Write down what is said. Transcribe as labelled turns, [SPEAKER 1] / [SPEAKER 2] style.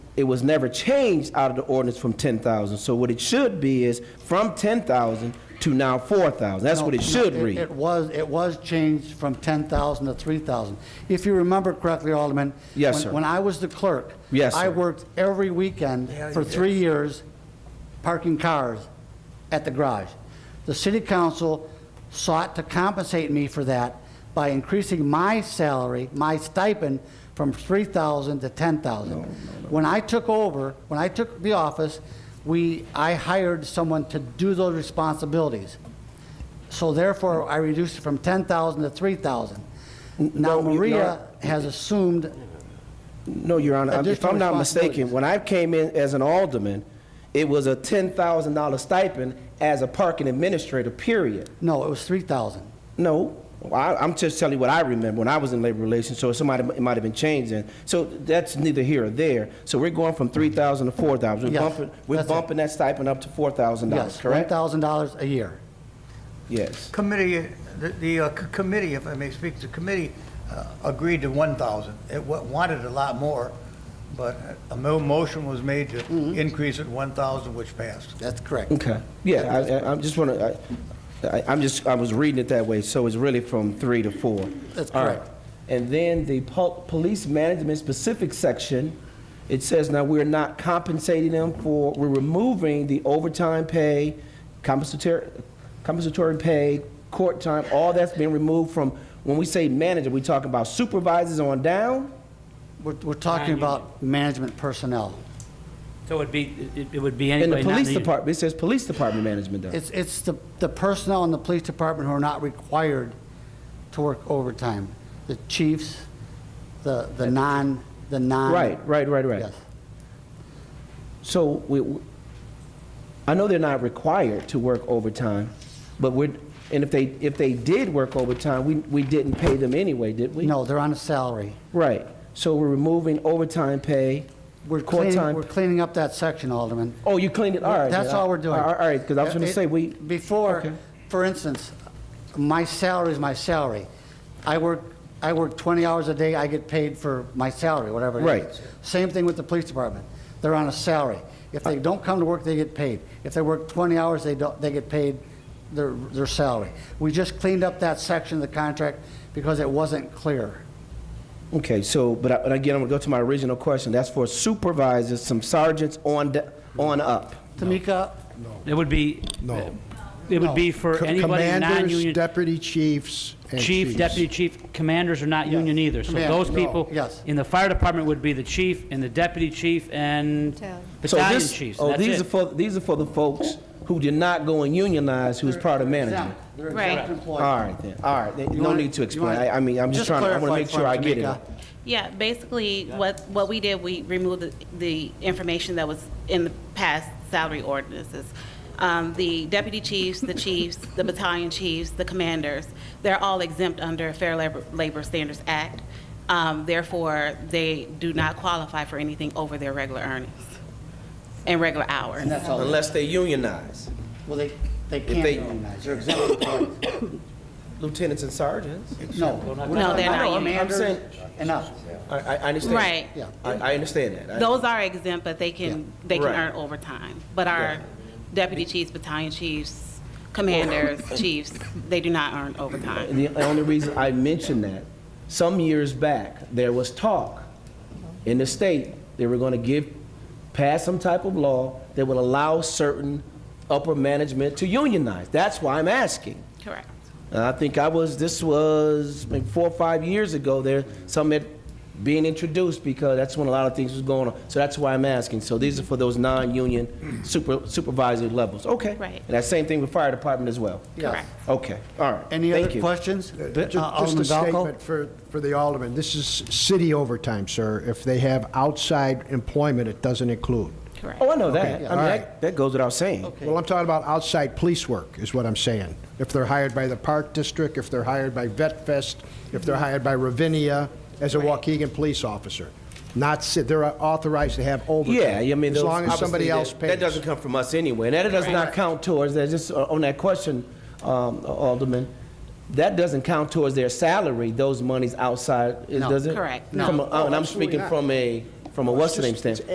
[SPEAKER 1] it was never changed out of the ordinance from 10,000. So what it should be is from 10,000 to now 4,000. That's what it
[SPEAKER 2] No,
[SPEAKER 1] should
[SPEAKER 2] no,
[SPEAKER 1] read.
[SPEAKER 2] It was, it was changed from 10,000 to 3,000. If you remember correctly, Alderman.
[SPEAKER 1] Yes,
[SPEAKER 2] when-
[SPEAKER 1] sir.
[SPEAKER 2] When I was the clerk.
[SPEAKER 1] Yes,
[SPEAKER 2] I
[SPEAKER 1] sir.
[SPEAKER 2] worked every weekend for three years parking cars at the garage. The city council sought to compensate me for that by increasing my salary, my stipend, from 3,000 to 10,000. When I took over, when I took the office, we, I hired someone to do those responsibilities. So therefore, I reduced it from 10,000 to 3,000. Now
[SPEAKER 1] no, you-
[SPEAKER 2] Maria has assumed,
[SPEAKER 1] No, Your Honor, if
[SPEAKER 2] Additional
[SPEAKER 1] I'm not mistaken,
[SPEAKER 2] responsibilities.
[SPEAKER 1] when I came in as an alderman, it was a $10,000 stipend as a parking administrator, period.
[SPEAKER 2] no, it was 3,000.
[SPEAKER 1] No, I, I'm just telling you what I remember when I was in labor relations, so somebody, it might have been changed then. So that's neither here or there. So we're going from three thousand to four thousand. We're
[SPEAKER 2] Yes,
[SPEAKER 1] bumping, we're
[SPEAKER 2] that's it.
[SPEAKER 1] bumping that stipend up to four thousand dollars,
[SPEAKER 2] Yes,
[SPEAKER 1] correct?
[SPEAKER 2] $1,000 a year.
[SPEAKER 1] Yes.
[SPEAKER 3] Committee, the- the uh, c- committee, if I may speak, the committee uh, agreed to 1,000. It wa- wanted a lot more, but a mo- motion was made to increase it 1,000, which passed.
[SPEAKER 2] That's correct.
[SPEAKER 1] Okay. Yeah, I, I, I'm just wanna, I, I, I'm just, I was reading it that way, so it's really from three to four.
[SPEAKER 2] That's
[SPEAKER 1] All right.
[SPEAKER 2] correct.
[SPEAKER 1] And then the pol- police management specific section, it says now we're not compensating them for, we're removing the overtime pay, compensatory, compensatory pay, court time, all that's being removed from, when we say manager, we talking about supervisors on down?
[SPEAKER 2] We're, we're talking about management personnel.
[SPEAKER 4] So it would be, it- it would be
[SPEAKER 1] In the
[SPEAKER 4] anybody not
[SPEAKER 1] police
[SPEAKER 4] needed.
[SPEAKER 1] department, it says police department management down.
[SPEAKER 2] It's, it's the, the personnel in the police department who are not required to work overtime. The chiefs, the, the non, the non.
[SPEAKER 1] Right, right, right, right.
[SPEAKER 2] Yes.
[SPEAKER 1] So we, we- I know they're not required to work overtime, but we're, and if they, if they did work overtime, we, we didn't pay them anyway, did we?
[SPEAKER 2] No, they're on a salary.
[SPEAKER 1] Right. So we're removing overtime pay,
[SPEAKER 2] We're
[SPEAKER 1] court
[SPEAKER 2] cleaning, we're
[SPEAKER 1] time.
[SPEAKER 2] cleaning up that section, Alderman.
[SPEAKER 1] Oh, you cleaned it, all right.
[SPEAKER 2] That's
[SPEAKER 1] then.
[SPEAKER 2] all we're doing.
[SPEAKER 1] All right, because I was going
[SPEAKER 2] It-
[SPEAKER 1] to say, we,
[SPEAKER 2] Before,
[SPEAKER 1] okay.
[SPEAKER 2] for instance, my salary is my salary. I work, I work 20 hours a day, I get paid for my salary, whatever it is.
[SPEAKER 1] Right.
[SPEAKER 2] Same thing with the police department. They're on a salary. If they don't come to work, they get paid. If they work 20 hours, they don't, they get paid their, their salary. We just cleaned up that section of the contract because it wasn't clear.
[SPEAKER 1] okay, so, but I- but again, I'm going to go to my original question. That's for supervisors, some sergeants on, da- on up.
[SPEAKER 2] Tamika,
[SPEAKER 4] It would be,
[SPEAKER 5] No.
[SPEAKER 4] it would be for
[SPEAKER 5] Co-
[SPEAKER 4] anybody
[SPEAKER 5] Commanders,
[SPEAKER 4] non-union.
[SPEAKER 5] deputy chiefs, and
[SPEAKER 4] Chief,
[SPEAKER 5] chiefs.
[SPEAKER 4] deputy chief, commanders are not union either. So
[SPEAKER 2] Commander,
[SPEAKER 4] those
[SPEAKER 2] no,
[SPEAKER 4] people
[SPEAKER 2] yes.
[SPEAKER 4] in the fire department would be the chief and the deputy chief and
[SPEAKER 6] Battalion.
[SPEAKER 1] So
[SPEAKER 4] battalion
[SPEAKER 1] this-
[SPEAKER 4] chiefs. and
[SPEAKER 1] Oh,
[SPEAKER 4] that's
[SPEAKER 1] these
[SPEAKER 4] it.
[SPEAKER 1] are for, these are for the folks who did not go and unionize, who was part of management.
[SPEAKER 2] They're
[SPEAKER 6] Right.
[SPEAKER 2] exempt employees.
[SPEAKER 1] All right, then, all right, then,
[SPEAKER 2] You
[SPEAKER 1] no
[SPEAKER 2] wanna-
[SPEAKER 1] need to
[SPEAKER 2] you
[SPEAKER 1] explain,
[SPEAKER 2] wanna-
[SPEAKER 1] I, I mean, I'm just
[SPEAKER 2] just
[SPEAKER 1] trying, to- I want to
[SPEAKER 2] clarify
[SPEAKER 1] make
[SPEAKER 2] for
[SPEAKER 1] sure I get it.
[SPEAKER 2] Tamika.
[SPEAKER 7] Yeah, basically, what, what we did, we removed the- the information that was in the past salary ordinances. Um, The deputy chiefs, the chiefs, the battalion chiefs, the commanders, they're all exempt under Fair Labor- Labor Standards Act. Um, Therefore, they do not qualify for anything over their regular earnings and regular hours.
[SPEAKER 2] And that's all.
[SPEAKER 1] Unless they unionize,
[SPEAKER 2] Well, they, they can't
[SPEAKER 1] they-
[SPEAKER 2] unionize, they're exempt employees.
[SPEAKER 1] lieutenants and sergeants.
[SPEAKER 2] No.
[SPEAKER 4] No,
[SPEAKER 7] they're not
[SPEAKER 1] union. I'm saying-
[SPEAKER 2] Enough.
[SPEAKER 1] I, I I understand.
[SPEAKER 7] Right.
[SPEAKER 2] Yeah.
[SPEAKER 1] I, I understand that. I-
[SPEAKER 7] Those are exempt, but they can, they can
[SPEAKER 1] Right.
[SPEAKER 7] earn overtime. But our deputy chiefs, battalion chiefs, commanders, chiefs, they do not earn overtime.
[SPEAKER 1] And the only reason I mention that, some years back, there was talk in the state, they were going to give, pass some type of law that would allow certain upper management to unionize. That's why I'm asking.
[SPEAKER 7] Correct.
[SPEAKER 1] And Uh, I think I was, this was maybe four or five years ago there, some had being introduced because that's when a lot of things was going on. So that's why I'm asking. So these are for those non-union super supervisory levels. Okay.
[SPEAKER 7] Right.
[SPEAKER 1] And that same thing with fire department as well.
[SPEAKER 2] Yes.
[SPEAKER 7] Correct.
[SPEAKER 1] Okay, all right.
[SPEAKER 2] Any
[SPEAKER 1] Thank
[SPEAKER 2] other
[SPEAKER 1] you.
[SPEAKER 2] questions?
[SPEAKER 5] Uh,
[SPEAKER 2] Uh,
[SPEAKER 5] ju- Just
[SPEAKER 2] Alderman
[SPEAKER 5] a
[SPEAKER 2] Valco?
[SPEAKER 5] statement for, for the alderman. This is city overtime, sir. If they have outside employment, it doesn't include.
[SPEAKER 7] Correct.
[SPEAKER 1] Oh, I know that. I
[SPEAKER 5] yeah,
[SPEAKER 1] mean,
[SPEAKER 5] all
[SPEAKER 1] that,
[SPEAKER 5] right.
[SPEAKER 1] that goes without saying.
[SPEAKER 5] Well, I'm talking about outside police work, is what I'm saying. If they're hired by the Park District, if they're hired by Vet Fest, if they're hired by Ravinia as a Waukegan police officer. Not, ci- they're authorized to have overtime.
[SPEAKER 1] Yeah, I mean,
[SPEAKER 5] As
[SPEAKER 1] those-
[SPEAKER 5] long as somebody
[SPEAKER 1] obviously
[SPEAKER 5] else
[SPEAKER 1] that-
[SPEAKER 5] pays.
[SPEAKER 1] That doesn't come from us anyway, and that does not count towards, that, just uh, on that question, um, Alderman, that doesn't count towards their salary, those monies outside, it
[SPEAKER 2] No.
[SPEAKER 1] does it? oh,
[SPEAKER 7] Correct.
[SPEAKER 1] From a- And I'm speaking from a, from a what's-the-name
[SPEAKER 5] just- it's
[SPEAKER 1] standpoint.